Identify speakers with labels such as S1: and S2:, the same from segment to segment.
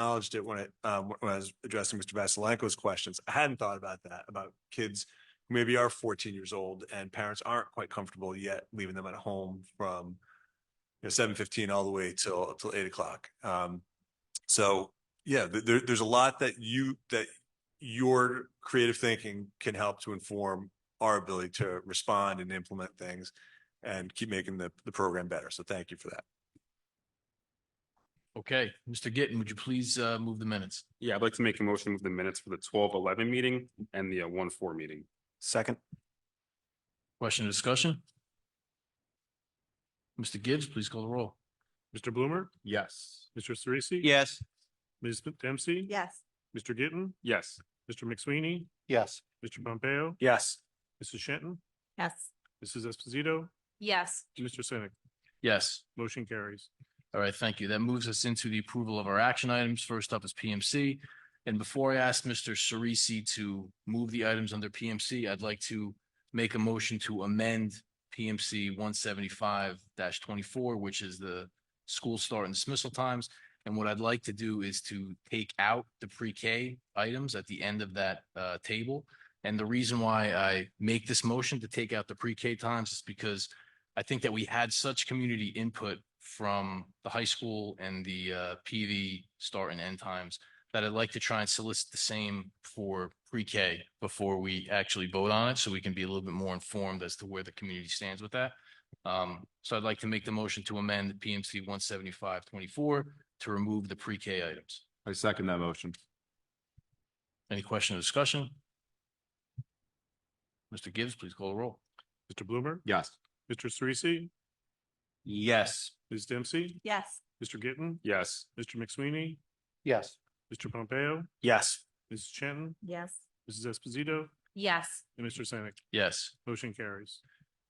S1: acknowledged it when it, um, when I was addressing Mr. Vassilenko's questions. I hadn't thought about that, about kids who maybe are fourteen years old and parents aren't quite comfortable yet leaving them at home from you know, seven fifteen all the way till, till eight o'clock. Um, so, yeah, th- there, there's a lot that you, that your creative thinking can help to inform our ability to respond and implement things and keep making the, the program better. So thank you for that.
S2: Okay, Mr. Gitten, would you please uh move the minutes?
S3: Yeah, I'd like to make a motion with the minutes for the twelve eleven meeting and the uh, one four meeting.
S1: Second.
S2: Question or discussion? Mr. Gibbs, please call the roll.
S4: Mr. Bloomer,
S3: Yes.
S4: Mr. Cerisi.
S5: Yes.
S4: Ms. Dempsey.
S6: Yes,
S4: Mr. Gittin,
S3: Yes.
S4: Mr. McSweeney,
S5: Yes.
S4: Mr. Pompeo,
S5: Yes.
S4: Mrs. Shenton,
S6: yes.
S4: Mrs. Esposito,
S6: Yes.
S4: Mr. Senick.
S2: Yes.
S4: Motion carries.
S2: All right, thank you. That moves us into the approval of our action items. First up is PMC. And before I ask Mr. Cerisi to move the items under PMC, I'd like to make a motion to amend PMC one seventy-five twenty-four, which is the school start and dismissal times. And what I'd like to do is to take out the pre-K items at the end of that uh table. And the reason why I make this motion to take out the pre-K times is because I think that we had such community input from the high school and the uh, PV start and end times that I'd like to try and solicit the same for pre-K before we actually vote on it, so we can be a little bit more informed as to where the community stands with that. Um, So I'd like to make the motion to amend PMC one seventy-five twenty-four to remove the pre-K items.
S3: I second that motion.
S2: Any question or discussion? Mr. Gibbs, please call the roll.
S4: Mr. Bloomer,
S3: Yes.
S4: Mr. Cerisi,
S5: Yes.
S4: Ms. Dempsey,
S6: Yes.
S4: Mr. Gittin,
S3: Yes.
S4: Mr. McSweeney,
S5: Yes.
S4: Mr. Pompeo,
S5: Yes.
S4: Mrs. Shenton,
S6: Yes.
S4: Mrs. Esposito,
S6: Yes.
S4: and Mr. Senick.
S2: Yes.
S4: Motion carries.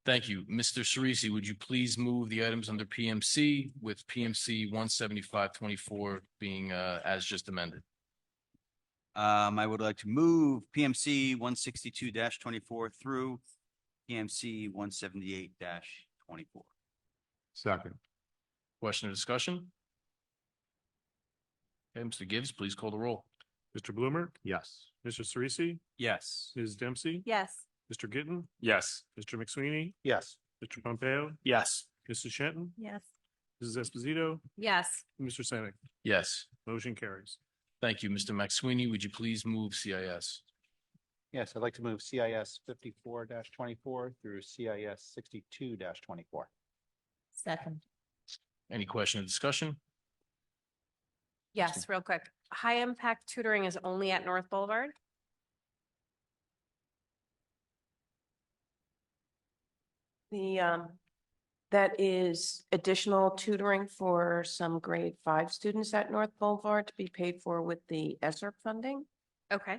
S2: Thank you. Mr. Cerisi, would you please move the items under PMC with PMC one seventy-five twenty-four being uh as just amended?
S5: Um, I would like to move PMC one sixty-two twenty-four through PMC one seventy-eight twenty-four.
S3: Second.
S2: Question or discussion? Okay, Mr. Gibbs, please call the roll.
S4: Mr. Bloomer,
S3: Yes.
S4: Mr. Cerisi,
S5: Yes.
S4: Ms. Dempsey,
S6: Yes.
S4: Mr. Gittin,
S3: Yes.
S4: Mr. McSweeney,
S5: Yes.
S4: Mr. Pompeo,
S5: Yes.
S4: Mrs. Shenton,
S6: Yes.
S4: Mrs. Esposito,
S6: Yes.
S4: and Mr. Senick.
S2: Yes.
S4: Motion carries.
S2: Thank you. Mr. McSweeney, would you please move CIS?
S7: Yes, I'd like to move CIS fifty-four twenty-four through CIS sixty-two twenty-four.
S6: Second.
S2: Any question or discussion?
S8: Yes, real quick. High impact tutoring is only at North Boulevard?
S9: The, um, that is additional tutoring for some grade five students at North Boulevard to be paid for with the ESSER funding.
S8: Okay,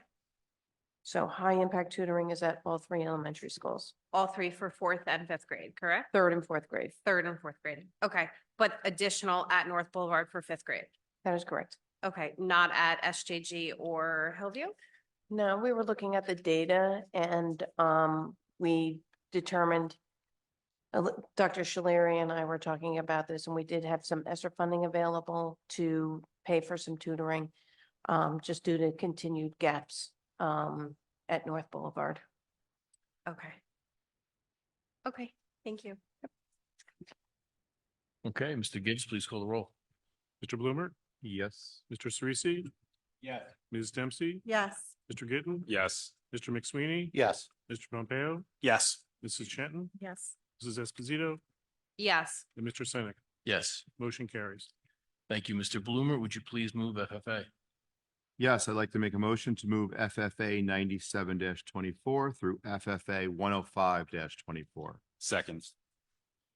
S9: So high impact tutoring is at all three elementary schools,
S8: all three for fourth and fifth grade, correct?
S9: third and fourth grade.
S8: Third and fourth grade. Okay, but additional at North Boulevard for fifth grade.
S9: That is correct.
S8: Okay, not at SJG or Hillview?
S9: No, we were looking at the data and, um, we determined uh, a li- Dr. Shaleri and I were talking about this and we did have some ESSER funding available to pay for some tutoring, um, just due to continued gaps, um, at North Boulevard.
S8: Okay. Okay, thank you.
S2: Okay, Mr. Gibbs, please call the roll.
S4: Mr. Bloomer,
S3: Yes.
S4: Mr. Cerisi,
S5: Yes.
S4: Ms. Dempsey,
S6: Yes.
S4: Mr. Gittin,
S3: Yes.
S4: Mr. McSweeney,
S7: Yes,
S4: Mr. Pompeo,
S5: Yes.
S4: Mrs. Shenton,
S6: Yes.
S4: Mrs. Esposito,
S8: Yes,
S4: and Mr. Senick.
S2: Yes.
S4: Motion carries.
S2: Thank you. Mr. Bloomer, would you please move FFA?
S10: Yes, I'd like to make a motion to move FFA ninety-seven twenty-four through FFA one oh five twenty-four.
S3: Second.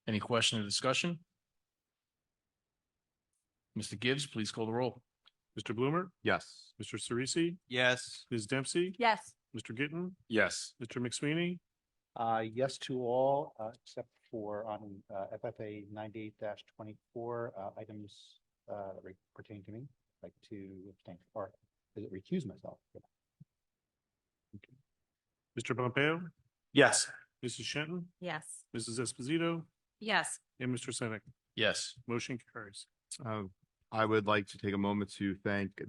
S2: Any question or discussion? Mr. Gibbs, please call the roll.
S4: Mr. Bloomer,
S10: Yes.
S4: Mr. Cerisi,
S5: Yes.
S4: Ms. Dempsey,
S6: Yes.
S4: Mr. Gittin,
S3: Yes.
S4: Mr. McSweeney,
S7: uh, yes to all, uh, except for on, uh, FFA ninety-eight twenty-four, uh, items, uh, that re- pertain to me. I'd Like to abstain or is it recuse myself?
S4: Mr. Pompeo,
S5: Yes.
S4: Mrs. Shenton,
S6: Yes.
S4: Mrs. Esposito,
S8: yes,
S4: and Mr. Senick.
S2: Yes.
S4: Motion carries.
S10: Uh, I would like to take a moment to thank